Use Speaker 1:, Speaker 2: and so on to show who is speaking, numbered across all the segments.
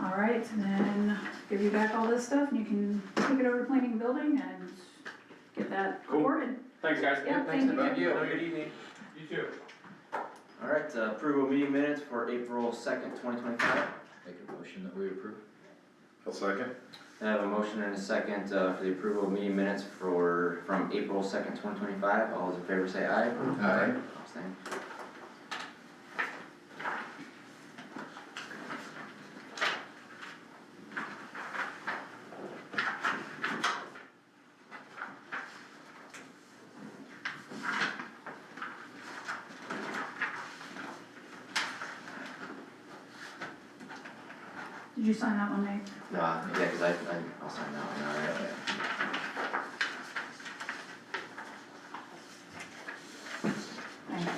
Speaker 1: All right, and then give you back all this stuff, and you can take it over to planning and building and get that
Speaker 2: Cool.
Speaker 1: recorded.
Speaker 2: Thanks, guys.
Speaker 1: Yeah, thank you.
Speaker 3: Thank you.
Speaker 2: Have a good evening. You too.
Speaker 3: All right, uh, approval of meeting minutes for April second, twenty twenty-five.
Speaker 4: Make a motion that we approve.
Speaker 5: I'll second.
Speaker 3: I have a motion and a second, uh, for the approval of meeting minutes for, from April second, twenty twenty-five. All those in favor say aye.
Speaker 5: Aye.
Speaker 3: Abstain.
Speaker 1: Did you sign that one, Nate?
Speaker 3: Nah, uh, yeah, cause I, I, I'll sign that one, all right.
Speaker 1: Thank you.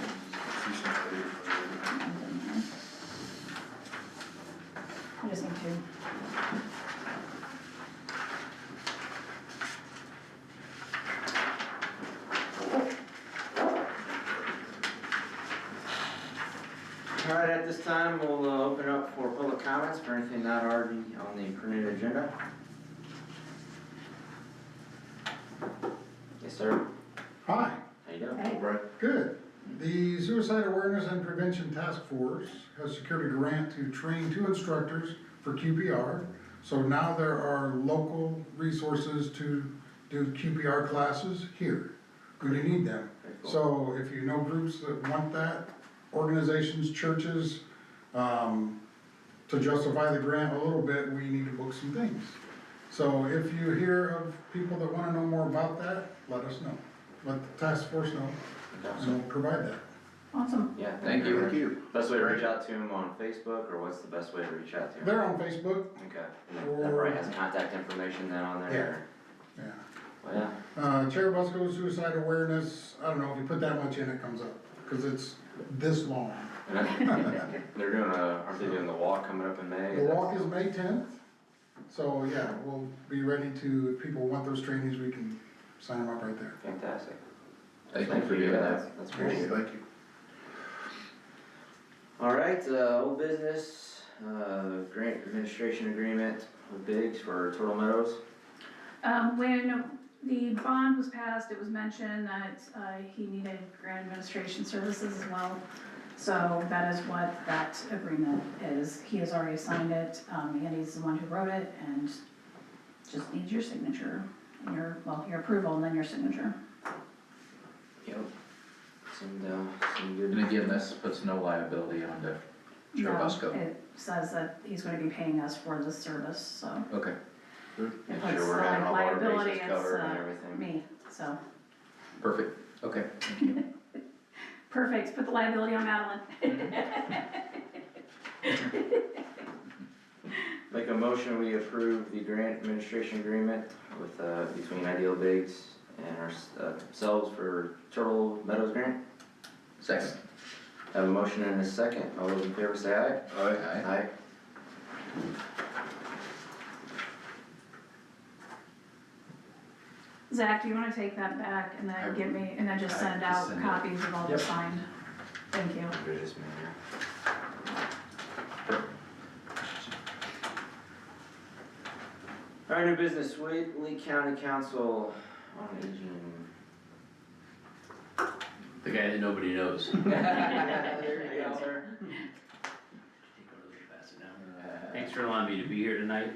Speaker 1: I just need two.
Speaker 3: All right, at this time, we'll uh, open up for public comments for anything not already on the printed agenda. Yes, sir.
Speaker 6: Hi,
Speaker 3: How you doing?
Speaker 1: Hey,
Speaker 5: Right.
Speaker 6: good. The Suicide Awareness and Prevention Task Force has secured a grant to train two instructors for QPR. So now there are local resources to do QPR classes here. Going to need them.
Speaker 3: Very cool.
Speaker 6: So if you know groups that want that, organizations, churches, um, to justify the grant a little bit, we need to book some things. So if you hear of people that wanna know more about that, let us know. Let the task force know, and we'll provide that.
Speaker 1: Awesome.
Speaker 3: Yeah, thank you.
Speaker 5: you.
Speaker 3: Best way to reach out to him on Facebook, or what's the best way to reach out to him?
Speaker 6: They're on Facebook,
Speaker 3: Okay, and that right has contact information then on there?
Speaker 6: yeah.
Speaker 3: Well, yeah,
Speaker 6: Uh, Cherubusco Suicide Awareness, I don't know, if you put that much in, it comes up, cause it's this long.
Speaker 3: and then, they're doing a, aren't they doing the walk coming up in May?
Speaker 6: The walk is May tenth, so yeah, we'll be ready to, if people want those trainings, we can sign them up right there.
Speaker 3: Fantastic.
Speaker 4: Thank you
Speaker 3: Thank
Speaker 4: for
Speaker 3: you
Speaker 4: doing
Speaker 3: for
Speaker 4: that.
Speaker 3: that, that's
Speaker 5: Thank
Speaker 3: great.
Speaker 5: you.
Speaker 3: All right, uh, old business, uh, grant administration agreement with Biggs for Turtle Meadows.
Speaker 1: Um, when the bond was passed, it was mentioned that, uh, he needed grant administration services as well. So that is what that agreement is. He has already signed it, um, Andy's the one who wrote it, and just needs your signature, and your, well, your approval and then your signature.
Speaker 3: Yep. Seemed, uh, seemed good.
Speaker 4: And again, this puts no liability on the, Sure,
Speaker 1: No,
Speaker 4: Bosco.
Speaker 1: It says that he's gonna be paying us for the service, so
Speaker 4: okay.
Speaker 1: it
Speaker 3: Make
Speaker 1: puts
Speaker 3: sure we're having
Speaker 1: uh,
Speaker 3: all our
Speaker 1: liability,
Speaker 3: bases
Speaker 1: it's,
Speaker 3: covered and
Speaker 1: uh,
Speaker 3: everything.
Speaker 1: me, so.
Speaker 4: Perfect, okay.
Speaker 1: Perfect, put the liability on Madeline.
Speaker 3: Make a motion, we approve the grant administration agreement with, uh, between Ideal Biggs and our- uh, ourselves for Turtle Meadows Grant.
Speaker 4: Second.
Speaker 3: Have a motion and a second, all those in favor say aye.
Speaker 5: Aye.
Speaker 4: Aye.
Speaker 3: Aye.
Speaker 1: Zach, do you wanna take that back and
Speaker 4: I
Speaker 1: then get me, and then just
Speaker 4: I
Speaker 1: send
Speaker 4: can
Speaker 1: out
Speaker 4: send it.
Speaker 1: copies of all the
Speaker 3: Yep.
Speaker 1: signed? Thank you.
Speaker 3: Business manager. All right, new business, Whately County Council on Aging.
Speaker 7: The guy that nobody knows. Take
Speaker 3: There you go, sir.
Speaker 7: over a little faster now. Thanks for allowing me to be here tonight.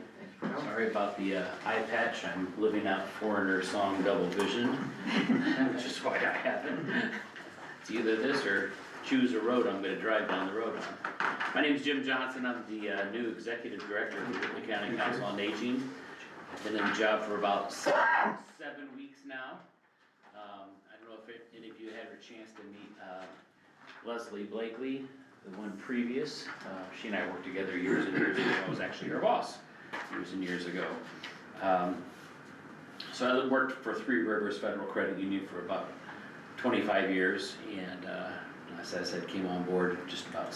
Speaker 7: Sorry about the uh, eye patch. I'm living out Foreigner song Double Vision, which is why I haven't. It's either this or choose a road I'm gonna drive down the road on. My name's Jim Johnson. I'm the uh, new executive director of the Whitley County Council on Aging. I've been in the job for about se- seven weeks now. Um, I don't know if it- any of you had a chance to meet uh, Leslie Blakely, the one previous. Uh, She and I worked together years and years ago. I was actually her boss years and years ago. Um, So I worked for Three Rivers Federal Credit Union for about 25 years, and uh, as I said, came on board just about